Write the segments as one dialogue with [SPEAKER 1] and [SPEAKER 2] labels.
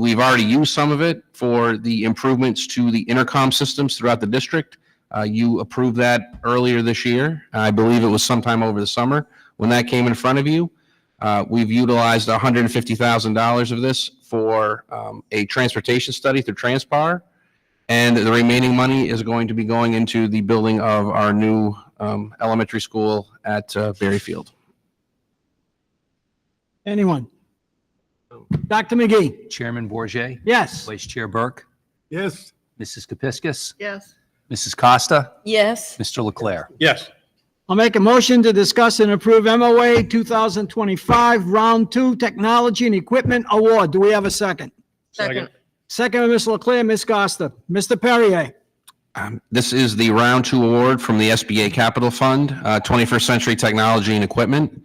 [SPEAKER 1] We've already used some of it for the improvements to the intercom systems throughout the district. Uh, You approved that earlier this year. I believe it was sometime over the summer when that came in front of you. Uh, We've utilized $150,000 of this for um, a transportation study through Transpar. And the remaining money is going to be going into the building of our new um, elementary school at uh, Berry Field.
[SPEAKER 2] Anyone? Dr. McGee?
[SPEAKER 3] Chairman Bourget,
[SPEAKER 2] Yes.
[SPEAKER 3] Vice Chair Burke,
[SPEAKER 4] Yes.
[SPEAKER 3] Mrs. Kepiscus,
[SPEAKER 5] Yes.
[SPEAKER 3] Mrs. Costa,
[SPEAKER 5] Yes.
[SPEAKER 3] Mr. Leclerc.
[SPEAKER 4] Yes.
[SPEAKER 2] I'll make a motion to discuss and approve MOA 2025, Round 2, Technology and Equipment Award. Do we have a second?
[SPEAKER 5] Second.
[SPEAKER 2] Second, by Ms. Leclerc, Ms. Costa. Mr. Perrier?
[SPEAKER 1] Um, This is the Round Two Award from the SBA Capital Fund, uh, 21st Century Technology and Equipment.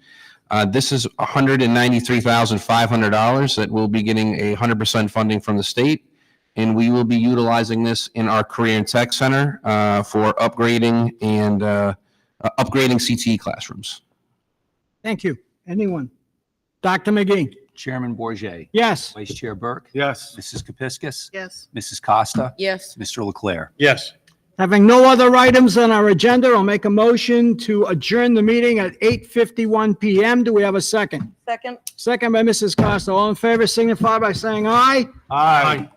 [SPEAKER 1] Uh, This is $193,500 that will be getting a 100% funding from the state. And we will be utilizing this in our Career and Tech Center uh, for upgrading and uh, uh, upgrading CTE classrooms.
[SPEAKER 2] Thank you. Anyone? Dr. McGee?
[SPEAKER 3] Chairman Bourget,
[SPEAKER 2] Yes.
[SPEAKER 3] Vice Chair Burke,
[SPEAKER 4] Yes.
[SPEAKER 3] Mrs. Kepiscus,
[SPEAKER 5] Yes.
[SPEAKER 3] Mrs. Costa,
[SPEAKER 5] Yes.
[SPEAKER 3] Mr. Leclerc.
[SPEAKER 4] Yes.
[SPEAKER 2] Having no other items on our agenda, I'll make a motion to adjourn the meeting at 8:51 PM. Do we have a second?
[SPEAKER 5] Second.
[SPEAKER 2] Second by Mrs. Costa. All in favor signify by saying aye.
[SPEAKER 4] Aye.